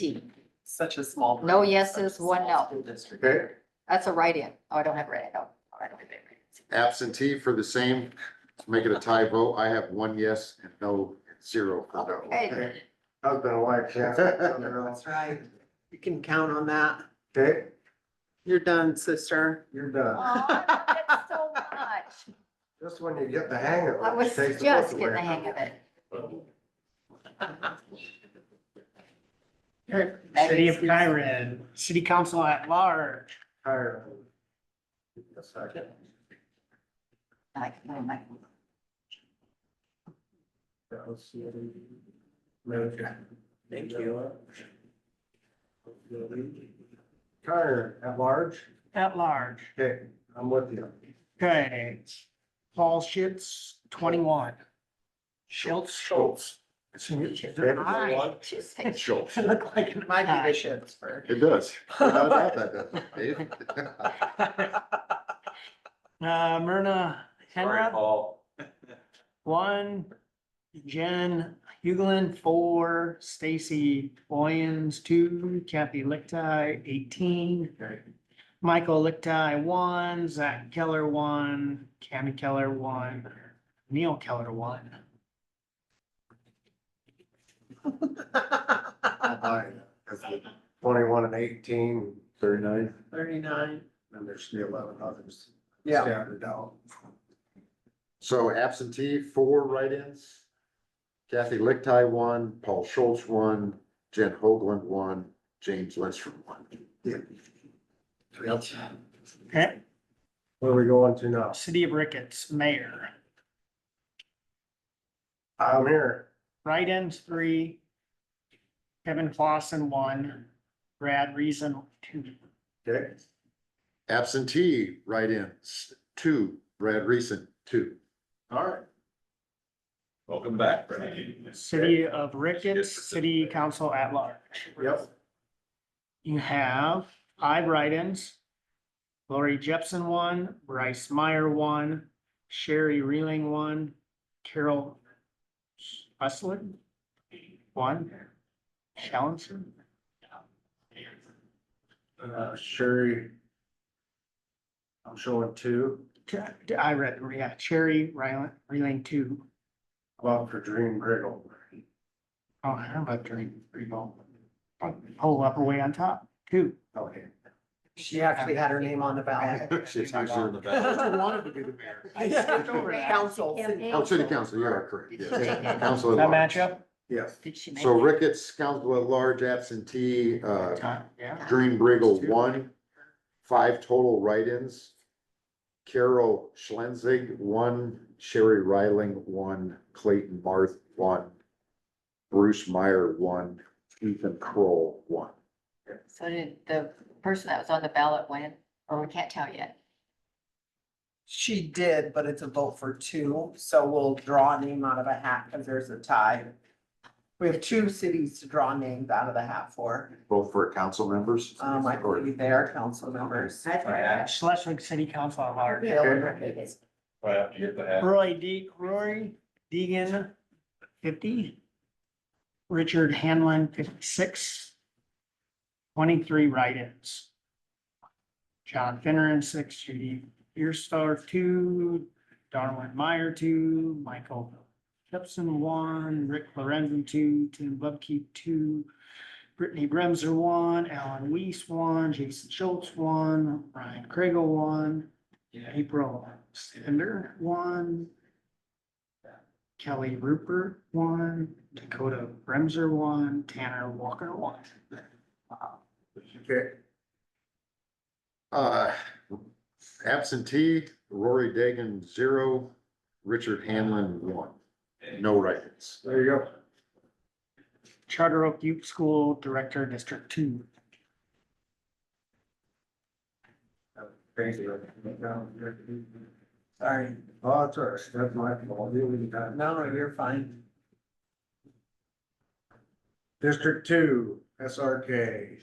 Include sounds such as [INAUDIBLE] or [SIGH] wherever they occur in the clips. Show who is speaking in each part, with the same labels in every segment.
Speaker 1: D.
Speaker 2: Such a small.
Speaker 1: No
Speaker 2: room,
Speaker 1: yeses,
Speaker 2: such a small
Speaker 1: one no.
Speaker 2: school district.
Speaker 3: Okay,
Speaker 1: That's a write-in. Oh, I don't have write-in. No, I don't have write-in.
Speaker 3: absentee for the same, make it a tie vote. I have one yes and no, zero for no.
Speaker 1: Okay.
Speaker 3: Husband and wife, [LAUGHS] yeah.
Speaker 2: That's right.
Speaker 4: You can count on that.
Speaker 3: Okay,
Speaker 4: You're done, sister.
Speaker 3: you're done.
Speaker 1: Aw, [LAUGHS]
Speaker 4: [LAUGHS]
Speaker 1: that's so much.
Speaker 3: Just when you get the hang of
Speaker 1: I was just getting the hang of it.
Speaker 5: City of Kyron, City Council at Large.
Speaker 1: Like, oh my-
Speaker 2: Thank you.
Speaker 3: Tire at large,
Speaker 5: At Large.
Speaker 3: okay, I'm with you.
Speaker 5: Okay. Paul Schitz, twenty-one. Schultz. Schultz. I
Speaker 1: She's like,
Speaker 3: Schultz.
Speaker 5: look like an
Speaker 4: My
Speaker 1: Aye.
Speaker 4: conditions for.
Speaker 3: It [LAUGHS] does. I doubt that doesn't, Dave.
Speaker 5: Uh, Myrna
Speaker 2: Sorry,
Speaker 5: Henrod,
Speaker 2: Paul.
Speaker 5: [LAUGHS] one. Jen Hughlin, four. Stacy Boyens, two. Kathy Lichtai, eighteen. Michael Lichtai, one. Zach Keller, one. Cammy Keller, one. Neil Keller, one.
Speaker 3: Twenty-one and eighteen. Thirty-nine.
Speaker 4: Thirty-nine.
Speaker 3: And there's the eleven others.
Speaker 4: [LAUGHS] Yeah.
Speaker 3: Standard out. So absentee, four write-ins. Kathy Lichtai, one, Paul Schultz, one, Jen Hoagland, one, James Lindstrom, one.
Speaker 5: Okay,
Speaker 3: Where are we going to now?
Speaker 5: City of Ricketts, mayor.
Speaker 3: I'm here.
Speaker 5: Write-ins, three. Kevin Clausen, one. Brad Reason, two.
Speaker 3: Okay. Absentee write-ins, two, Brad Reason, two.
Speaker 2: All right. Welcome back, Brad.
Speaker 5: City of Ricketts, City Council at Large.
Speaker 3: Yep.
Speaker 5: You have five write-ins. Lori Jepson, one. Bryce Meyer, one. Sherry Reeling, one. Carol Hustlin, one. Shallenson,
Speaker 3: Uh, Sherry. I'm showing two,
Speaker 5: I read, yeah, Sherry Reeling, Reeling, two.
Speaker 3: about for Dream Griggle.
Speaker 5: Oh, I don't know about during three ball. Whole upper way on top, two.
Speaker 3: Okay.
Speaker 4: She actually had her name on the ballot.
Speaker 3: She's usually in the [LAUGHS] back.
Speaker 4: I
Speaker 3: wanted to be the
Speaker 4: [LAUGHS]
Speaker 3: mayor.
Speaker 4: I skipped over that. Council.
Speaker 1: Campaign.
Speaker 3: Oh, city council, you are correct. yes. Council
Speaker 5: Does that
Speaker 3: at large.
Speaker 5: match up?
Speaker 3: Yes.
Speaker 1: Did she make?
Speaker 3: So Ricketts, council at large absentee, uh,
Speaker 5: Time, Yeah.
Speaker 3: Dream Briggle, one, five total write-ins. Carol Schlenzig, one, Sherry Reiling, one, Clayton Barth, one, Bruce Meyer, one, Ethan Kroll, one.
Speaker 1: So did the person that was on the ballot win? Or we can't tell yet.
Speaker 4: She did, but it's a vote for two, so we'll draw a name out of a hat because there's a tie. We have two cities to draw names out of the hat for.
Speaker 3: Both for council members?
Speaker 4: Um, I believe they are council members.
Speaker 2: Yeah.
Speaker 5: Schleswig City Council at large.
Speaker 2: I have to get the hat.
Speaker 5: Roy De, Roy Deegan, fifty. Richard Hanlon, fifty-six. Twenty-three write-ins. John Finneran, six, Judy Earstar, two, Darwin Meyer, two, Michael Jepson, one, Rick Lorenzen, two, Tim Bubke, two, Brittany Bremser, one, Alan Weiss, one, Jason Schultz, one, Ryan Kragel, one, April Sander, one. Kelly Rupert, one, Dakota Bremser, one, Tanner Walker, one.
Speaker 3: Okay. Uh, absentee Rory Dagan, zero, Richard Hanlon, one, no write-ins.
Speaker 2: There you go.
Speaker 5: Charter Oak Youth School Director, District Two.
Speaker 2: Crazy.
Speaker 4: Sorry,
Speaker 2: Oh, it's all right. That's my fault. You wouldn't have-
Speaker 4: no, you're fine.
Speaker 3: District two, SRK.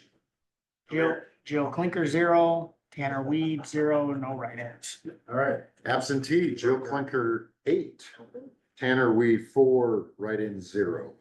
Speaker 5: Jill, Jill Clinker, zero, Tanner Weed, zero, no write-ins.
Speaker 3: All right. Absentee, Joe Clinker, eight. Tanner Weed, four, write-in, zero.